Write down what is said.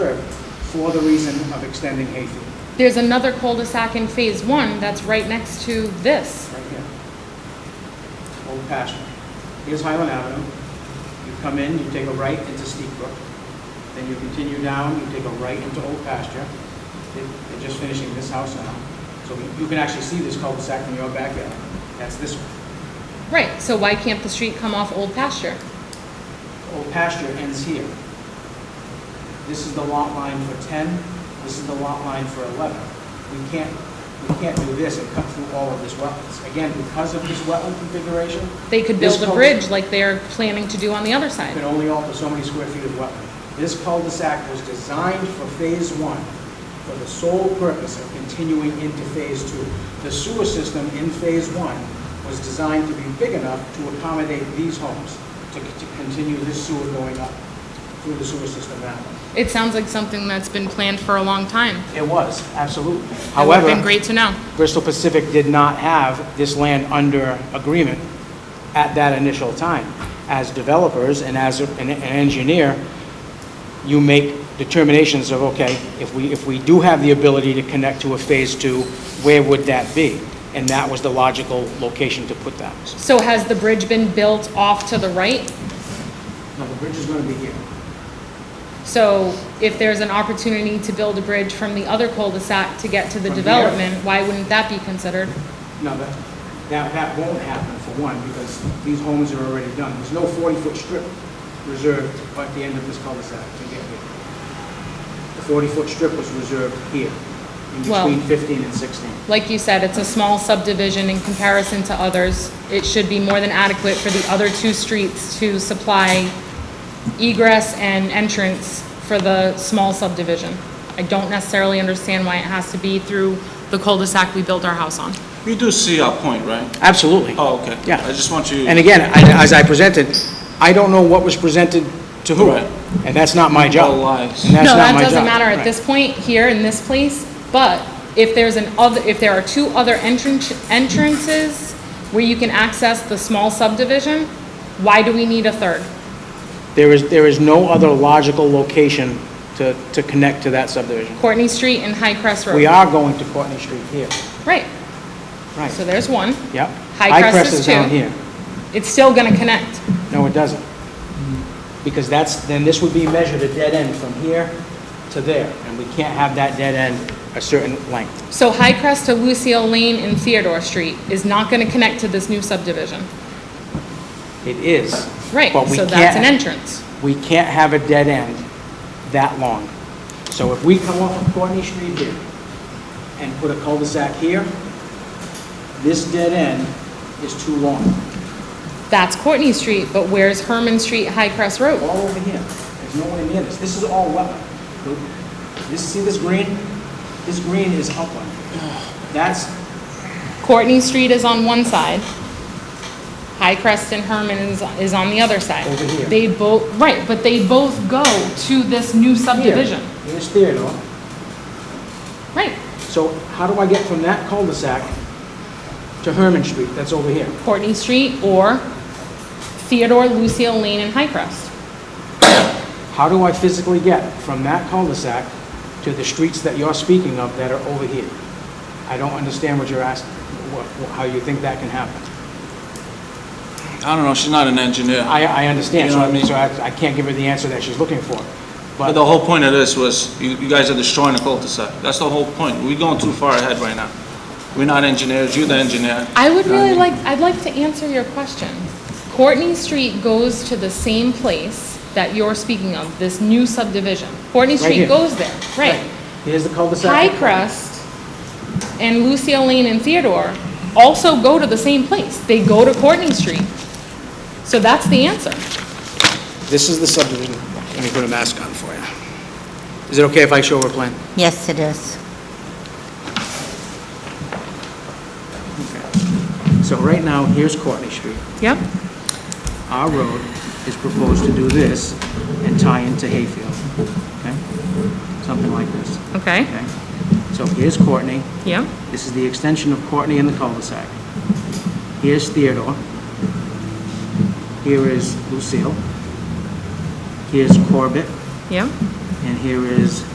for the reason of extending Hayfield, There's another cul-de-sac in Phase One that's right next to this. right here. Old pasture. Here's Highland Avenue. You come in, you take a right into Steep Brook. Then you continue down, you take a right into Old Pasture. They- They're just finishing this house now. So you- you can actually see this cul-de-sac from your backyard. That's this one. Right, so why can't the street come off Old Pasture? old pasture ends here. This is the lot line for 10, this is the lot line for 11. We can't, we can't do this and cut through all of this wetlands. Again, because of this wetland configuration, They could This build a cul- bridge like they're planning to do on the other it side. can only alter so many square feet of wetland. This cul-de-sac was designed for Phase 1 for the sole purpose of continuing into Phase 2. The sewer system in Phase 1 was designed to be big enough to accommodate these homes, to to continue this sewer going up through the sewer system that way. It sounds like something that's been planned for a long time. It It was, absolutely. would have been However, great to know. Bristol Pacific did not have this land under agreement at that initial time. As developers and as an an engineer, you make determinations of, okay, if we, if we do have the ability to connect to a Phase 2, where would that be? And that was the logical location to put that. So has the bridge been built off to the right? Now, the bridge is going to be here. So if there's an opportunity to build a bridge from the other cul-de-sac to get to the From here? development, why wouldn't that be considered? No, that, that, that won't happen for one, because these homes are already done. There's no forty-foot strip reserved at the end of this cul-de-sac to get here. The forty-foot strip was reserved here, in Well- between fifteen and sixteen. Like you said, it's a small subdivision in comparison to others. It should be more than adequate for the other two streets to supply egress and entrance for the small subdivision. I don't necessarily understand why it has to be through the cul-de-sac we built our house on. You do see our point, right? Absolutely. Oh, okay. Yeah. I just want you, And again, I- as I presented, I don't know what was presented to who, Right. and that's not my job. All lies. And that's not No, that my job. doesn't matter at Right. this point, here in this place, but if there's an other, if there are two other entrance, entrances where you can access the small subdivision, why do we need a third? There is, there is no other logical location to, to connect to that subdivision. Courtney Street and High Crest Road. We are going to Courtney Street here, Right, right, so there's one, yep. High Crest is down two. here. it's still gonna connect. No, it doesn't. Because that's, then this would be measured a dead end from here to there, and we can't have that dead end a certain length. So High Crest to Lucille Lane and Theodore Street is not gonna connect to this new subdivision. It is. Right, But we so that's an can't- entrance. We can't have a dead end that long. So if we come off of Courtney Street here and put a cul-de-sac here, this dead end is too long, That's Courtney Street, but where's Herman Street, High Crest Road? all over here. There's no one near this. This is all wetland. This, see this green? This green is upland. That's Courtney Street is on one side. High Crest and Herman is, is on the other side. Over here. They both, right, but they both go to this Here. new subdivision. Here's Theodore. Right, So how do I get from that cul-de-sac to Herman Street that's over here? Courtney Street or Theodore, Lucille Lane, and High Crest. How do I physically get from that cul-de-sac to the streets that you're speaking of that are over here? I don't understand what you're asking, what- how you think that can happen. I don't know, she's not an engineer. I, I understand, You so know what I I, mean? so I I can't give her the answer that she's looking for. But But the whole point of this was, you, you guys are destroying the cul-de-sac. That's the whole point. We're going too far ahead right now. We're not engineers, you're the engineer. I would really Um, like, I'd like to answer your question. Courtney Street goes to the same place that you're speaking of, this new subdivision. Courtney Street here. goes there, right. here's the cul-de-sac. Pie Crust and Lucille Lane and Theodore also go to the same place. They go to Courtney Street. So that's the answer. This is the subdivision. Let me put a mask on for you. Is it okay if I show her a plan? Yes, it is. So right now, here's Courtney Street. Yep. our road is proposed to do this and tie into Hayfield, okay? Something like this, Okay. okay? So here's Courtney, Yep. this is the extension of Courtney and the cul-de-sac. Here's Theodore. Here is Lucille. Here's Corbett, Yep. and here is